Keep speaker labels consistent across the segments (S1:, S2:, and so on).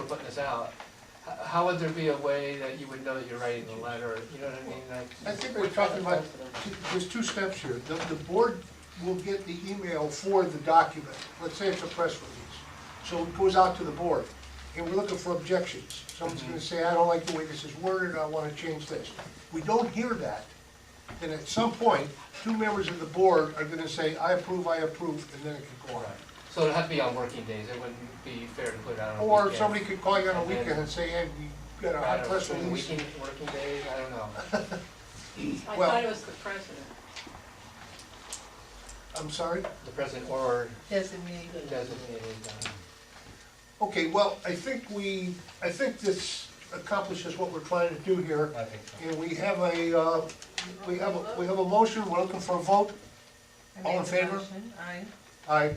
S1: this out, h- how would there be a way that you would know that you're writing the letter, you know what I mean, like?
S2: I think we're talking about, there's two steps here. The, the board will get the email for the document. Let's say it's a press release. So it goes out to the board, and we're looking for objections. Someone's gonna say, I don't like the way this is worded, I wanna change this. We don't hear that, then at some point, two members of the board are gonna say, I approve, I approve, and then it can go on.
S1: So it'd have to be on working days, it wouldn't be fair to put it out on a weekend.
S2: Or somebody could call you on a weekend and say, hey, we got a
S1: I
S2: hot
S1: don't
S2: press
S1: know,
S2: release.
S1: weekend, working days, I don't know.
S3: I
S2: Well-
S3: thought it was the president.
S2: I'm sorry?
S1: The president or
S4: Designated.
S1: designated, um,
S2: Okay, well, I think we, I think this accomplishes what we're trying to do here.
S5: I think so.
S2: And we have a, uh, we have, a we have a motion, we're looking for a vote.
S4: I
S2: All in
S4: made the
S2: favor?
S4: motion, Aye.
S2: Aye.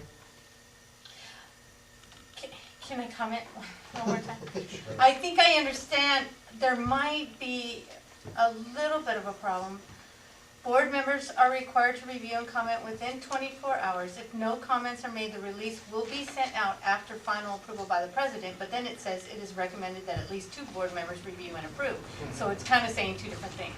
S6: Can- Can I comment one more time? I think I understand, there might be a little bit of a problem. Board members are required to review and comment within 24 hours. If no comments are made, the release will be sent out after final approval by the president, but then it says it is recommended that at least two board members review and approve. So it's kind of saying two different things.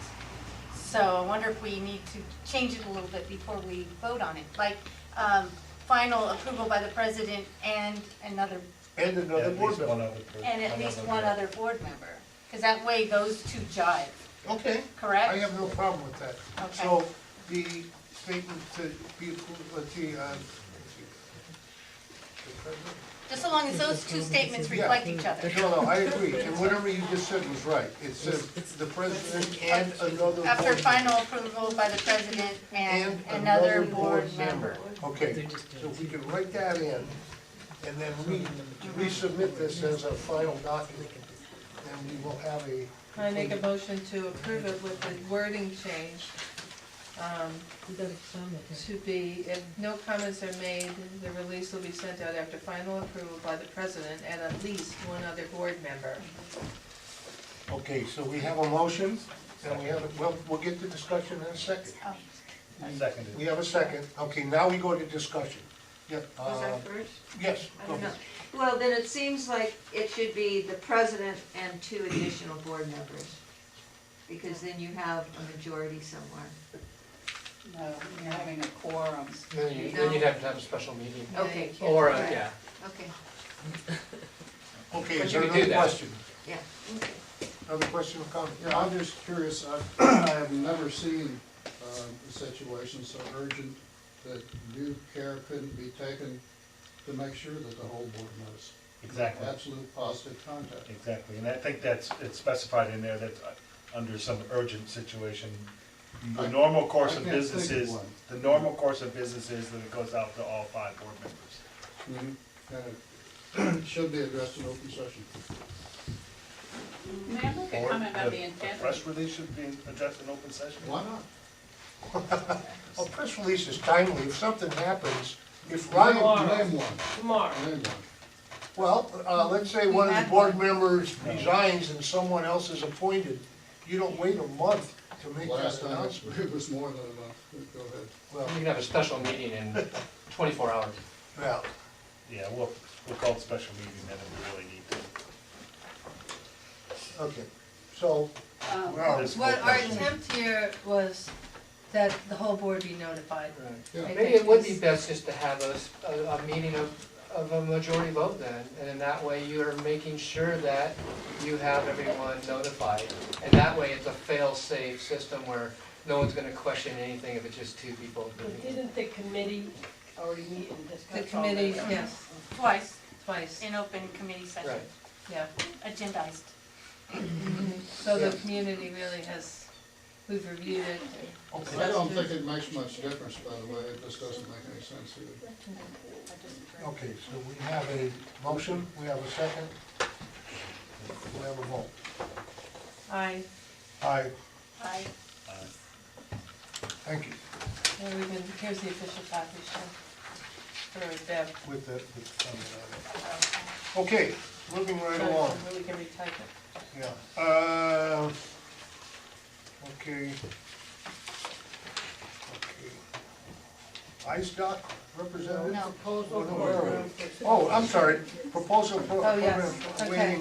S6: So I wonder if we need to change it a little bit before we vote on it, like, um, final approval by the president and another
S2: And
S5: Yeah,
S2: another
S5: at
S2: board
S5: least
S2: member.
S5: one other per-
S6: and at least one
S5: member.
S6: other board member, because that way those two jive,
S2: Okay,
S6: correct?
S2: I have no problem with that.
S6: Okay.
S2: So the statement to be approved, let the, uh,
S6: Just so long as those two statements reflect each other.
S2: no, no, I agree, and whatever you just said was right. It says the president and another board.
S6: After
S2: member.
S6: final approval by the president and another board member.
S2: Okay, so if we can write that in, and then we resubmit this as a final document, then we will have a.
S4: I make a motion to approve it with the wording change. um, To be, if no comments are made, the release will be sent out after final approval by the president and at least one other board member.
S2: Okay, so we have a motion, and we have, a- well, we'll get to discussion in a second.
S6: Oh,
S5: Seconded.
S2: We have a second, okay, now we go to discussion. Yeah,
S7: Was
S2: uh,
S7: that first?
S2: yes,
S7: I
S2: go
S7: don't know.
S2: ahead.
S7: Well, then it seems like it should be the president and two additional board members. Because then you have a majority somewhere.
S8: No, you're having a quorum.
S1: then you, then you'd have to have a special meeting,
S4: Yeah, you
S7: Okay.
S4: can't-
S1: or, a-
S7: Right.
S1: yeah,
S7: Okay,
S2: Okay,
S1: But
S2: is
S1: you
S2: there
S1: can do
S2: another
S1: that.
S2: question?
S7: yeah.
S2: Another question or comment?
S9: Yeah, I'm just curious, I've, I have never seen, um, a situation so urgent that due care couldn't be taken to make sure that the whole board knows.
S5: Exactly,
S9: Absolute positive contact.
S5: exactly, and I think that's, it's specified in there that uh, under some urgent situation, the
S9: I-
S5: normal course
S9: I
S5: of
S9: can't think of
S5: business is,
S9: one.
S5: the normal course of business is that it goes out to all five board members.
S9: Mhm. And it should be addressed in open session.
S8: May I make a
S5: Or
S8: comment
S5: the-
S8: about the intent?
S5: the Press release should be addressed in open session.
S9: Why not?
S2: A Oh, press release is timely, if something happens, if Ronald
S9: Name name one,
S3: Tomorrow.
S9: name one.
S2: Well, uh, let's say one of the board members resigns and someone else is appointed, you don't wait a month to make that
S9: Last time,
S2: announcement.
S9: it was more than enough. Go ahead.
S2: Well,
S1: you can have a special meeting in twenty-four hours.
S2: yeah,
S5: Yeah, we'll, we'll call it special meeting then if we really need to.
S2: okay, so,
S8: Um,
S2: well,
S5: This
S4: What
S5: whole
S4: our
S5: question.
S4: attempt here was that the whole board be notified.
S9: Yeah.
S1: Maybe it would be best just to have a, s- a- a meeting of, of a majority vote then, and in that way you're making sure that you have everyone notified. And that way it's a fail-safe system where no one's gonna question anything if it's just two people.
S3: But didn't the committee already meet and discuss
S4: The
S3: all
S4: committee,
S3: that?
S4: yes,
S6: Twice
S4: twice,
S6: in open committee session,
S1: Right.
S4: yeah.
S6: agendized.
S4: So the community really has, we've reviewed it.
S2: okay.
S9: I don't think it makes much difference, by the way. It just doesn't make any sense either.
S2: Okay, so we have a motion, we have a second, we have a vote.
S4: Aye,
S2: Aye,
S6: Aye.
S5: Uh,
S2: thank you,
S4: Well, we've been, here's the official copy, so, for Deb,
S2: with the, with the comment on it. Okay, moving right along.
S4: so we can retype it.
S2: Yeah, uh, okay. Okay. ISDOC representative?
S6: No.
S2: Oh, no, where are we? Oh, I'm sorry, proposal pro-
S4: Oh, yes,
S2: program,
S4: okay.
S2: waiting